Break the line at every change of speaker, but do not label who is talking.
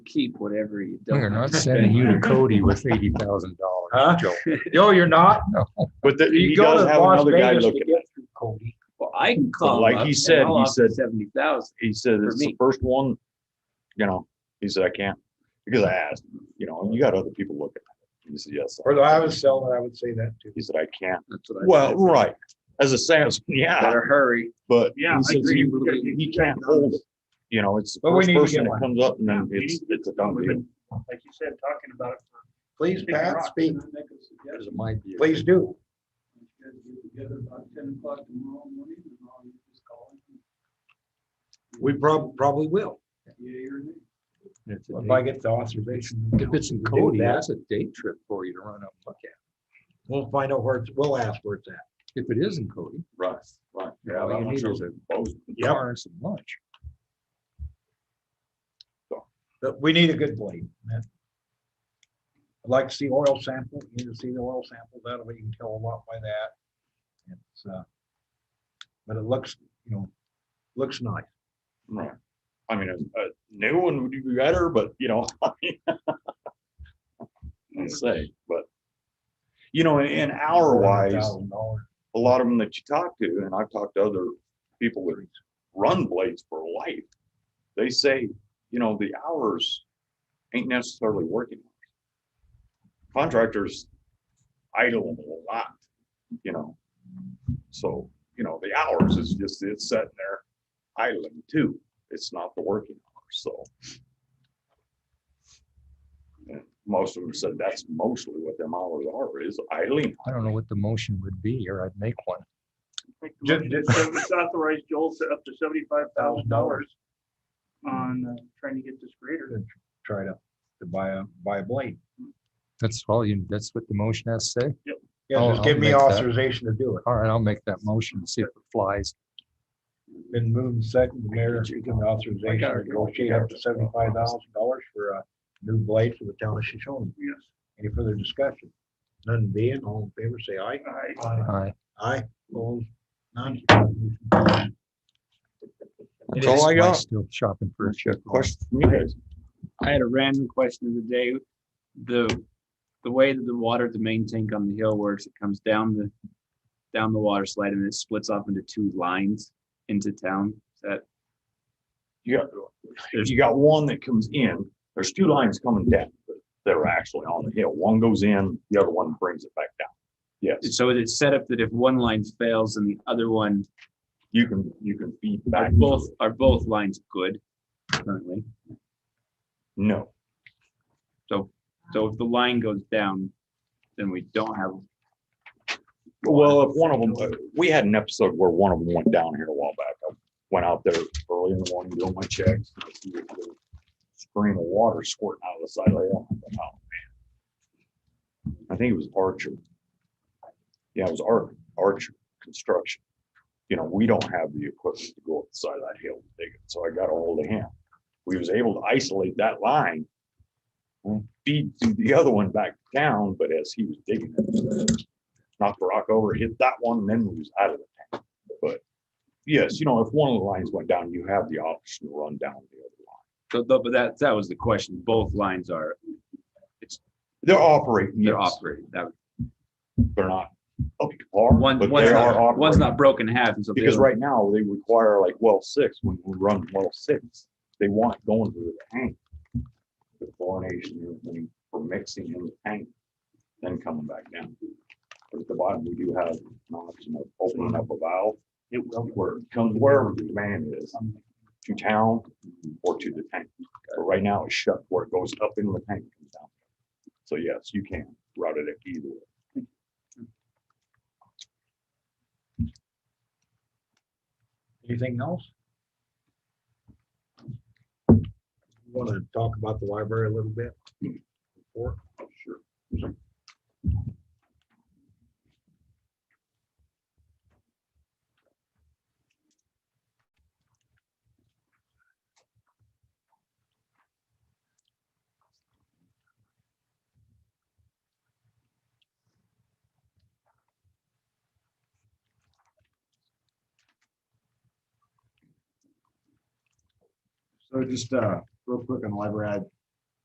keep whatever you
We're
don't.
not sending you to Cody with eighty thousand
Huh?
dollars, Joe.
No, you're not.
No.
But the-
You
he does
gotta
have
have
Las
another guy
Vegas to
looking
get through Cody.
Well, I can call. him
like
up
he
and
said,
I'll
he
offer
said-
Seventy thousand.
He said,
For
it's the
me.
first one, you know, he said, I can't, because I asked, you know, you got other people looking. at it." He said, yes.
Or though I was selling, I would say that too.
He said, I can't.
That's what I.
Well,
said.
right, as a salesman, yeah,
Better hurry.
but
Yeah,
he
I
says
agree.
he,
We gotta-
he can't hold it. You know, it's the
But we
first
need to
person
get
that
one.
comes up and then it's, it's a done
We've
deal.
been, like you said, talking about it for.
Please, Pat, speak.
Because it might be.
Please do. We prob- probably will.
It's a
If I
day-
get the authorization.
If it's in
to do
Cody,
that,
that's a day trip for you to run up and look at.
We'll find out where it's, we'll ask where it's at.
If it is in Cody,
Right, right.
all you need is a
Yep.
car and some lunch.
But we need a good blade. man. I'd like to see oil sample, you can see the oil sample, that way you can tell a lot by that. It's, uh, but it looks, you know, looks nice.
Right. I mean, a, a new one would be better, but you know. I say, but. You know, in hour wise,
$400,000.
a lot of them that you talk to, and I've talked to other people that run blades for life. They say, you know, the hours ain't necessarily working. hours. Contractors idle a lot, you know. So, you know, the hours is just, it's sitting there idling too. It's not the working hours, so. And Most of them said that's mostly what them hours are, is idling.
I don't know what the motion would be, or I'd make one.
Ju- ju-
It's authorized Joel to up to seventy-five thousand dollars on uh, trying to get this grader.
Try to, to buy a, buy a blade.
That's all you, that's what the motion has to say?
Yeah,
I'll-
just
I'll
give me
make that.
authorization to do it.
All right, I'll make that motion, and see if it flies.
Been moved second, the mayor, you give me authorization to negotiate up to seventy-five thousand dollars for a new blade for the town of Shoshone.
Yes.
Any further discussion? None being, all in favor, say aye.
I-
Aye.
Aye, opposed, none.
That's
all I got.
Still shopping for a check.
Question from you guys.
I had a random question of the day. The, the way that the water at the main tank on the hill works, it comes down the, down the water slide and it splits off into two lines into town. Is that,
You got, you got one that comes in, there's two lines coming down that are actually on the hill. One goes in, the other one brings it back down. Yes,
so it's set up that if one line fails and the other one,
you can, you can feed
are
back.
both, are both lines good currently?
No,
So if the line goes down, then we don't have,
well, if one of them, we had an episode where one of them went down here a while back. I Went out there early in the morning, doing my checks. and I see a little Stream of water squirting out of the side of the hill. I thought, "Oh, man." I think it was Archer. Yeah, it was Ar- Archer Construction. you know, we don't have the equipment to go up the side of that hill and dig it. So I got a hold of him. We was able to isolate that line, feed through the other one back down, but as he was digging it, knocked the rock over, hit that one, and then we was out of the tank. But yes, you know, if one of the lines went down, you have the option to run down the other line.
so, tho- but that, that was the question. Both lines are,
They're operating,
they're
yes.
operating. That,
They're not up to par,
one,
but
one's
they are
not, one's
operating.
not broken in half. And so the
Because
other-
right now, they require like well six, when we run well six, they want it going through the tank. The chlorination, and everything for mixing in the tank, then coming back down. But At the bottom, we do have an option of opening up a valve. It will. Where it comes, wherever the demand is, to town or to the tank. But right now, it's shut where it goes up into the tank and comes down. So yes, you can route it either way.
Anything else? Want to talk about the library a little bit? Sure.
So just uh, real quick on the library, I